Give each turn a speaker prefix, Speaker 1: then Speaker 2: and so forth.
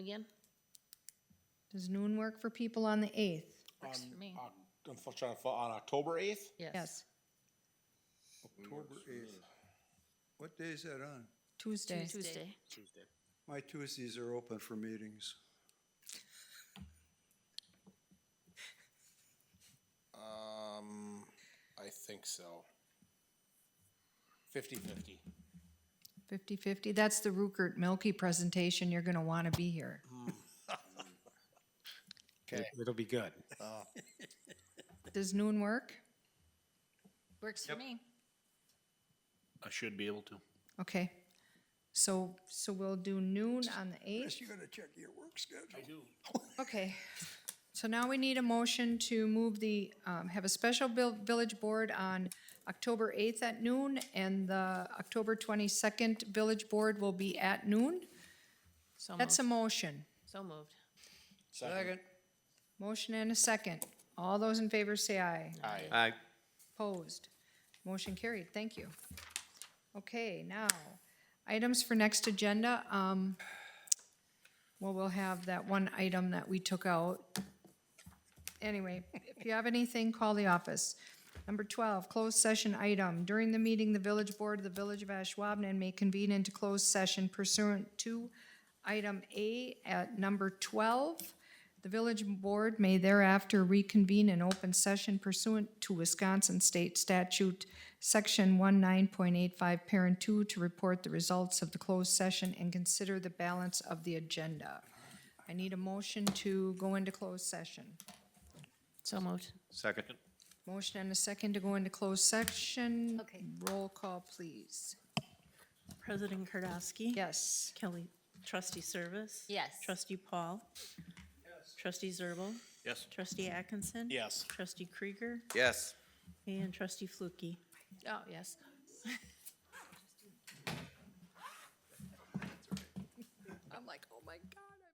Speaker 1: Again?
Speaker 2: Does noon work for people on the 8th?
Speaker 1: Works for me.
Speaker 3: Oc- Unfortunately, for- on October 8th,
Speaker 2: Yes,
Speaker 4: October eighth. What day is that on?
Speaker 2: Tuesday.
Speaker 1: Tuesday.
Speaker 4: My Tuesdays are open for meetings.
Speaker 3: um, I think so. 50-50.
Speaker 2: 50/50, that's the Rupert Milky presentation, you're going to want to be here.
Speaker 3: Okay. It'll be good.
Speaker 2: Does noon work?
Speaker 1: Mm. Works for me.
Speaker 5: I should be able to.
Speaker 2: Okay, so, so we'll do noon on the 8th?
Speaker 4: Yes, you gotta check your work schedule.
Speaker 2: Okay, so now we need a motion to move the, um, have a special bill, village board on October eighth at noon, and the October twenty-second village board will be at noon.
Speaker 1: So
Speaker 2: That's a
Speaker 1: moved.
Speaker 2: motion.
Speaker 1: So moved.
Speaker 3: Second.
Speaker 2: Motion and a second. All those in favor say aye.
Speaker 3: Aye.
Speaker 5: Aye.
Speaker 2: Opposed. Motion carried. Thank you. Okay, now, items for next agenda. Um, well, we'll have that one item that we took out. Anyway, if you have anything, call the office. Number twelve, closed session item. During the meeting, the village board of the Village of Ashwabhanan may convene into closed session pursuant to item A at number twelve. The village board may thereafter reconvene in open session pursuant to Wisconsin State Statute, Section 19.85, Parent 2, to report the results of the closed session and consider the balance of the agenda. I need a motion to go into closed session.
Speaker 1: So moved.
Speaker 5: Second.
Speaker 2: Motion and a second to go into closed section.
Speaker 1: Okay.
Speaker 2: Roll call, please.
Speaker 6: President Kardowski.
Speaker 2: Yes.
Speaker 6: Kelly. Trustee Service.
Speaker 1: Yes.
Speaker 6: Trustee Paul. Trustee Zerbal.
Speaker 5: Yes.
Speaker 6: Trustee Atkinson.
Speaker 3: Yes.
Speaker 6: Trustee Krieger
Speaker 5: Yes.
Speaker 6: and Trustee Flukie.
Speaker 1: Oh, yes.